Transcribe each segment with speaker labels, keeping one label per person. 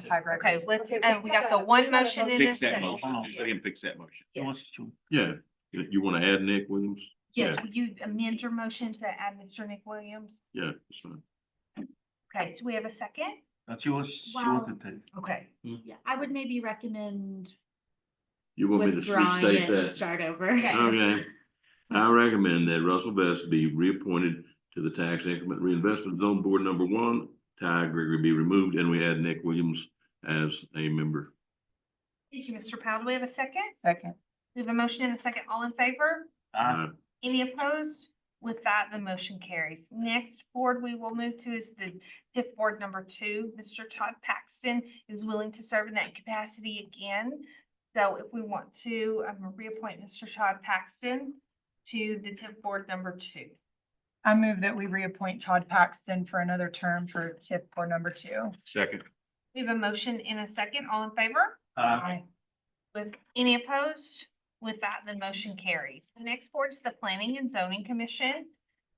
Speaker 1: tiebreaker.
Speaker 2: Okay, let's,
Speaker 3: Okay,
Speaker 2: and we got the one motion in a
Speaker 4: Fix that
Speaker 2: second.
Speaker 4: motion, just let him fix that motion.
Speaker 2: Yes.
Speaker 5: Yeah, you you wanna add Nick Williams?
Speaker 2: Yes, will you amend your motion to add Mr. Nick Williams?
Speaker 5: Yeah, that's fine.
Speaker 2: Okay, do we have a second?
Speaker 6: That's yours,
Speaker 7: Well-
Speaker 6: yours to take.
Speaker 2: Okay.
Speaker 7: Yeah, I would maybe recommend
Speaker 5: You want me to
Speaker 7: withdrawing
Speaker 5: restate
Speaker 7: it and
Speaker 5: that?
Speaker 7: start over.
Speaker 2: Okay.
Speaker 5: Okay. I recommend that Russell Best be reappointed to the Tax Increment Reinvestment Zone Board Number One. Ty Gregory be removed and we add Nick Williams as a member.
Speaker 2: Thank you, Mr. Powell. Do we have a second?
Speaker 1: Second,
Speaker 2: We have a motion and a second. All in favor?
Speaker 6: Uh,
Speaker 2: Any opposed? With that, the motion carries. Next board we will move to is the TIF Board Number Two. Mr. Todd Paxton is willing to serve in that capacity again. So if we want to, um, reappoint Mr. Todd Paxton to the TIF Board Number Two.
Speaker 1: I move that we reappoint Todd Paxton for another term for TIP for number two.
Speaker 4: Second.
Speaker 2: We have a motion and a second. All in favor?
Speaker 4: Um,
Speaker 6: uh,
Speaker 2: With any opposed? With that, the motion carries. The next board is the Planning and Zoning Commission.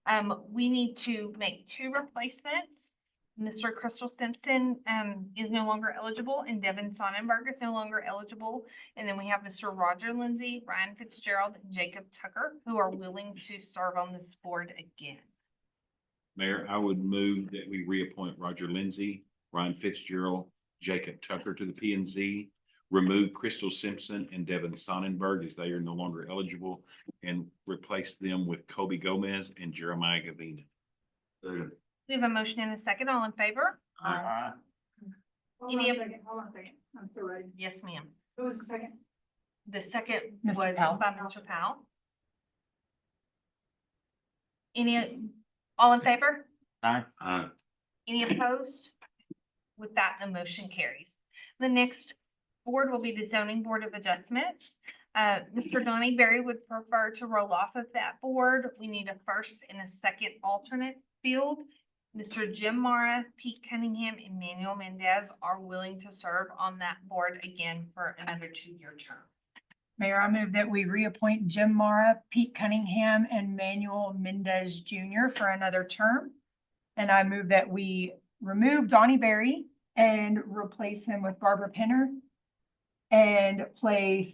Speaker 2: Um, we need to make two replacements. Mr. Crystal Simpson, um, is no longer eligible and Devin Sonnenberg is no longer eligible. And then we have Mr. Roger Lindsay, Ryan Fitzgerald, and Jacob Tucker, who are willing to serve on this board again.
Speaker 4: Mayor, I would move that we reappoint Roger Lindsay, Ryan Fitzgerald, Jacob Tucker to the P and Z. Remove Crystal Simpson and Devin Sonnenberg as they are no longer eligible and replace them with Kobe Gomez and Jeremiah Gavina.
Speaker 5: Second.
Speaker 2: We have a motion and a second. All in favor?
Speaker 6: uh,
Speaker 3: Hold on
Speaker 2: Any
Speaker 3: a
Speaker 2: of-
Speaker 3: second, hold on a second. I'm still writing.
Speaker 2: Yes, ma'am.
Speaker 3: Who was the second?
Speaker 2: The second
Speaker 1: Mr.
Speaker 2: was
Speaker 1: Powell.
Speaker 2: by Mr. Powell. Any, all in favor?
Speaker 6: aye.
Speaker 5: Aye.
Speaker 2: Any opposed? With that, the motion carries. The next board will be the zoning board of adjustments. Uh, Mr. Donnie Berry would prefer to roll off of that board. We need a first and a second alternate field. Mr. Jim Mara, Pete Cunningham, and Manuel Mendez are willing to serve on that board again for another two-year term.
Speaker 1: Mayor, I move that we reappoint Jim Mara, Pete Cunningham, and Manuel Mendez Jr. for another term. And I move that we remove Donnie Berry and replace him with Barbara Pinner. And place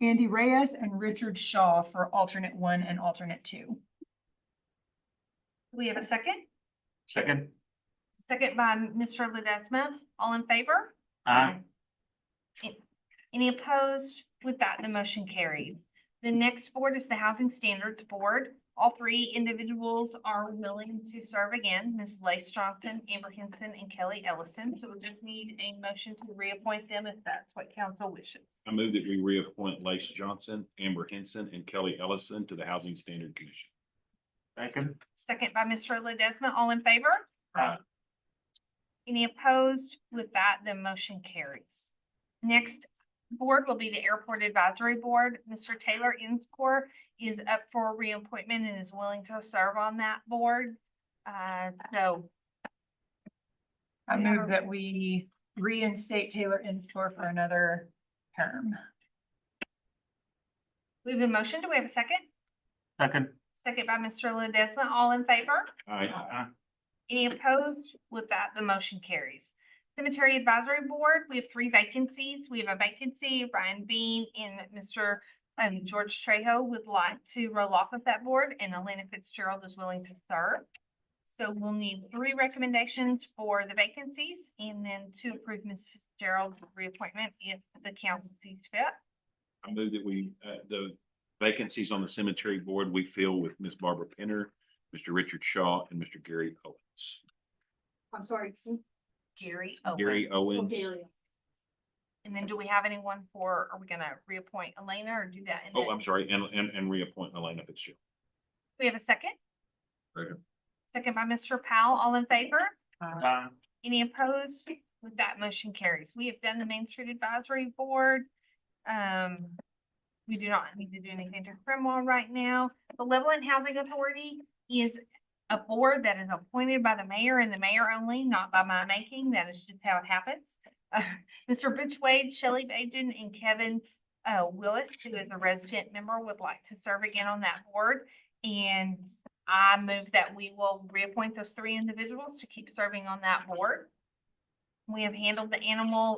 Speaker 1: Andy Reyes and Richard Shaw for alternate one and alternate two.
Speaker 2: Do we have a second?
Speaker 6: Second,
Speaker 2: Second by Mr. Ledesma. All in favor?
Speaker 6: aye.
Speaker 2: Any- Any opposed? With that, the motion carries. The next board is the Housing Standards Board. All three individuals are willing to serve again, Ms. Lace Johnson, Amber Henson, and Kelly Ellison. So we just need a motion to reappoint them if that's what council wishes.
Speaker 4: I move that we reappoint Lace Johnson, Amber Henson, and Kelly Ellison to the Housing Standard Commission.
Speaker 6: Second,
Speaker 2: Second by Mr. Ledesma. All in favor?
Speaker 6: Aye.
Speaker 2: Any opposed? With that, the motion carries. Next board will be the Airport Advisory Board. Mr. Taylor Inskore is up for reappointment and is willing to serve on that board. Uh, so
Speaker 1: I
Speaker 2: Yeah.
Speaker 1: move that we reinstate Taylor Instore for another term.
Speaker 2: we have a motion. Do we have a second?
Speaker 6: second,
Speaker 2: Second by Mr. Ledesma. All in favor?
Speaker 4: Aye.
Speaker 6: aye.
Speaker 2: Any opposed? With that, the motion carries. Cemetery Advisory Board, we have three vacancies. We have a vacancy, Ryan Bean and Mr. um, George Trejo would like to roll off of that board, and Elena Fitzgerald is willing to serve. So we'll need three recommendations for the vacancies, and then to approve Ms. Fitzgerald's reappointment if the council sees fit.
Speaker 4: I move that we, uh, the vacancies on the cemetery board, we fill with Ms. Barbara Penner, Mr. Richard Shaw, and Mr. Gary Owens.
Speaker 3: I'm sorry. who?
Speaker 2: Gary Owens.
Speaker 4: Gary Owens,
Speaker 3: Bulgaria.
Speaker 2: And then do we have anyone for, are we gonna reappoint Elena or do that? in
Speaker 4: oh,
Speaker 2: the-
Speaker 4: I'm sorry, and, and, and reappoint Elena Fitzgerald.
Speaker 2: We have a second?
Speaker 4: Second.
Speaker 2: Second by Mr. Powell, all in favor?
Speaker 6: Aye.
Speaker 2: Any opposed? With that motion carries. We have done the Main Street Advisory Board. Um, we do not need to do anything to Cromwell right now. The Levelland Housing Authority is a board that is appointed by the mayor and the mayor only, not by my making. That is just how it happens. Uh, Mr. Rich Wade, Shelley Bajan, and Kevin uh, Willis, who is a resident member, would like to serve again on that board. And I move that we will reappoint those three individuals to keep serving on that board. We have handled the animal